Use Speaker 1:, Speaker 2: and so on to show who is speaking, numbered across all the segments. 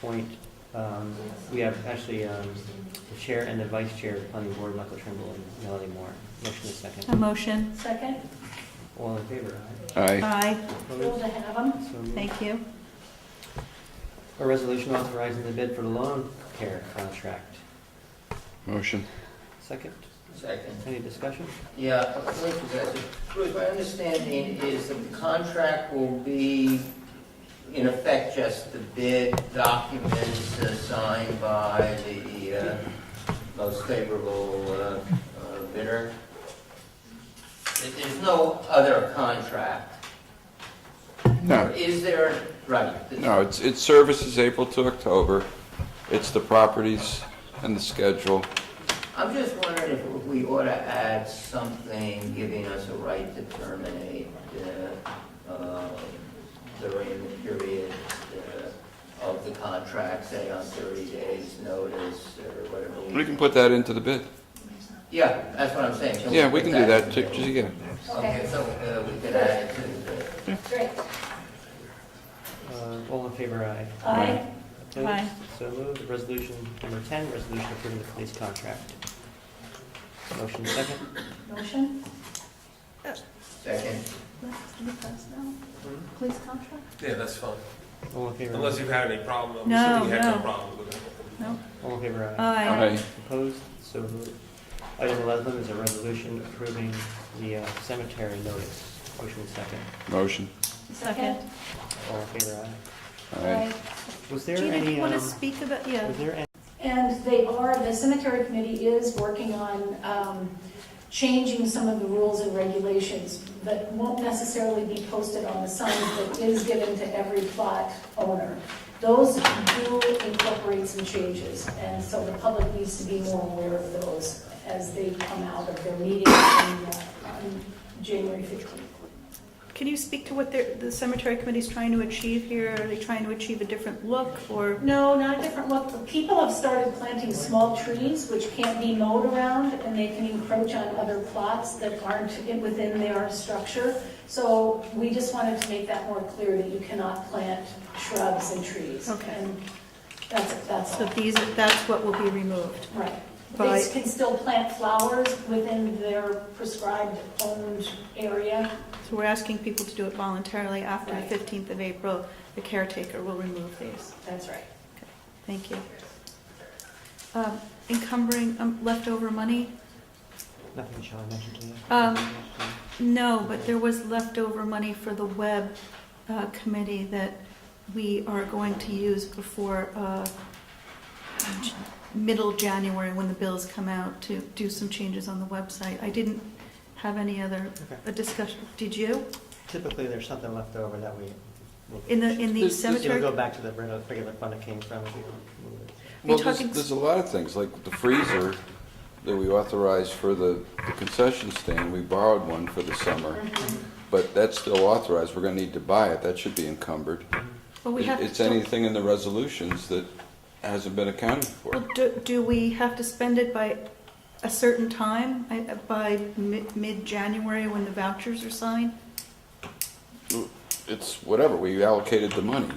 Speaker 1: point, um, we have actually um, the chair and the vice chair of the planning board, Michael Trimble and Melanie Moore. Motion is
Speaker 2: A
Speaker 1: second.
Speaker 2: motion?
Speaker 3: Second,
Speaker 1: All in favor? aye?
Speaker 4: Aye.
Speaker 2: Aye,
Speaker 3: cool
Speaker 1: Opposed?
Speaker 3: to have them.
Speaker 1: So moved.
Speaker 2: thank you.
Speaker 1: A resolution authorizing the bid for the lawn care contract.
Speaker 4: Motion.
Speaker 1: Second,
Speaker 5: Second.
Speaker 1: any discussion?
Speaker 5: Yeah, thank you guys. Bruce, my understanding is that the contract will be, in effect, just the bid documents uh, signed by the uh, most favorable uh, uh, bidder. There- There's no other contract.
Speaker 4: No,
Speaker 5: Is there, right?
Speaker 4: no, it's, it's services April to October. It's the properties and the schedule.
Speaker 5: I'm just wondering if we ought to add something giving us a right to terminate uh, uh, during the period uh, of the contract, say on 30 days' notice or whatever.
Speaker 4: We can put that into the bid.
Speaker 5: Yeah, that's what I'm saying. Can
Speaker 4: Yeah, we
Speaker 5: put
Speaker 4: can do that,
Speaker 5: in
Speaker 4: ju-
Speaker 5: there?
Speaker 4: just, yeah.
Speaker 5: Okay, so uh, we can add it to the,
Speaker 3: Great.
Speaker 1: Uh, All in favor, aye.
Speaker 3: Aye.
Speaker 1: Opposed?
Speaker 2: Aye.
Speaker 1: So moved. Resolution number 10, resolution approving the police contract. Motion second.
Speaker 3: Motion?
Speaker 5: second.
Speaker 2: Police contract?
Speaker 6: Yeah, that's fine.
Speaker 1: All in favor?
Speaker 6: Unless you've had any problem, I'm
Speaker 2: No,
Speaker 6: assuming you had no
Speaker 2: no.
Speaker 6: problem with it.
Speaker 2: No.
Speaker 1: All in favor, aye.
Speaker 2: Aye,
Speaker 4: Aye.
Speaker 1: Opposed? So moved. Item 11 is a resolution approving the uh, cemetery notice. Motion second.
Speaker 4: Motion.
Speaker 2: second.
Speaker 1: All in favor, aye.
Speaker 4: Aye.
Speaker 1: Was there
Speaker 2: Gina, do
Speaker 1: any,
Speaker 2: you
Speaker 1: um,
Speaker 2: want to
Speaker 1: was
Speaker 2: speak about, yeah,
Speaker 1: there any?
Speaker 3: And they are, the cemetery committee is working on um, changing some of the rules and regulations that won't necessarily be posted on the signs that is given to every plot owner. Those do incorporate some changes, and so the public needs to be more aware of those as they come out of their meeting on uh, on January 15th.
Speaker 2: can you speak to what they're- the cemetery committee's trying to achieve here? Are they trying to achieve a different look, or,
Speaker 3: No, not a different look. But People have started planting small trees which can't be mowed around and they can encroach on other plots that aren't in- within their structure. So we just wanted to make that more clear that you cannot plant shrubs and trees.
Speaker 2: Okay.
Speaker 3: And that's, that's
Speaker 2: so
Speaker 3: all.
Speaker 2: these, that's what will be removed?
Speaker 3: Right.
Speaker 2: By-
Speaker 3: They can still plant flowers within their prescribed owned area.
Speaker 2: So we're asking people to do it voluntarily after the
Speaker 3: Right.
Speaker 2: 15th of April. The caretaker will remove these.
Speaker 3: That's right.
Speaker 2: Thank you. Um, Encumbering um, leftover money?
Speaker 1: Nothing shall I mention to you?
Speaker 2: Um, No, but there was leftover money for the web uh, committee that we are going to use before uh, j- middle January, when the bills come out, to do some changes on the website. I didn't have any other
Speaker 1: Okay.
Speaker 2: uh, discussion, did you?
Speaker 1: Typically, there's something left over that we. we'll-
Speaker 2: In the, in the
Speaker 4: This- this-
Speaker 1: It'll
Speaker 2: cemetery?
Speaker 1: go back to the regular regular fund it came from. if you move it.
Speaker 4: Well,
Speaker 2: Are you
Speaker 4: there's,
Speaker 2: talking-
Speaker 4: there's a lot of things, like the freezer that we authorized for the the concession stand, we borrowed one for the summer, but that's still authorized, we're gonna need to buy it, that should be encumbered.
Speaker 2: Well, we
Speaker 4: It-
Speaker 2: have to
Speaker 4: It's
Speaker 2: still-
Speaker 4: anything in the resolutions that hasn't been accounted for.
Speaker 2: Well, do, do we have to spend it by a certain time, I- by mi- mid-January when the vouchers are signed?
Speaker 4: It's whatever, we allocated the money,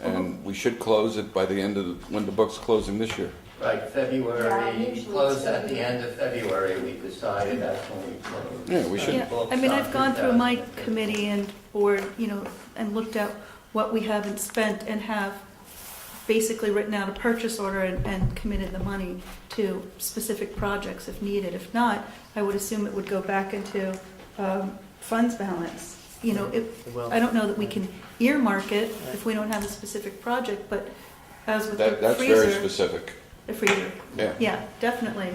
Speaker 4: and we should close it by the end of, the- when the book's closing this year.
Speaker 5: Right,
Speaker 3: Yeah, usually
Speaker 5: February,
Speaker 3: it's
Speaker 5: closed at the
Speaker 3: February.
Speaker 5: end of February, we decided that's when we closed.
Speaker 4: Yeah, we should.
Speaker 2: Yeah, I mean, I've gone through my committee and board, you know, and looked at what we haven't spent and have basically written out a purchase order and, and committed the money to specific projects if needed. If not, I would assume it would go back into, um, funds balance. You know, it,
Speaker 1: It will.
Speaker 2: I don't know that we can earmark it if we don't have a specific project, but as with
Speaker 4: That,
Speaker 2: the
Speaker 4: that's very
Speaker 2: freezer,
Speaker 4: specific,
Speaker 2: the freezer,
Speaker 4: yeah.
Speaker 2: yeah, definitely.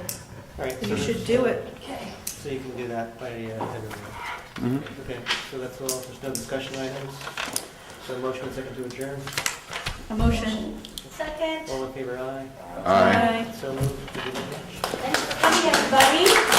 Speaker 1: All right, so
Speaker 2: You
Speaker 1: there's-
Speaker 2: should do it.
Speaker 3: Okay.
Speaker 1: So you can do that by, uh, end of the month.
Speaker 4: Mhm.
Speaker 1: okay, so that's all, there's no discussion items. So motion and second to adjourn,
Speaker 2: A motion.
Speaker 3: Second.
Speaker 1: all in favor, aye.
Speaker 4: Aye.
Speaker 1: So moved. Thank you very much.
Speaker 3: Thanks for coming, everybody.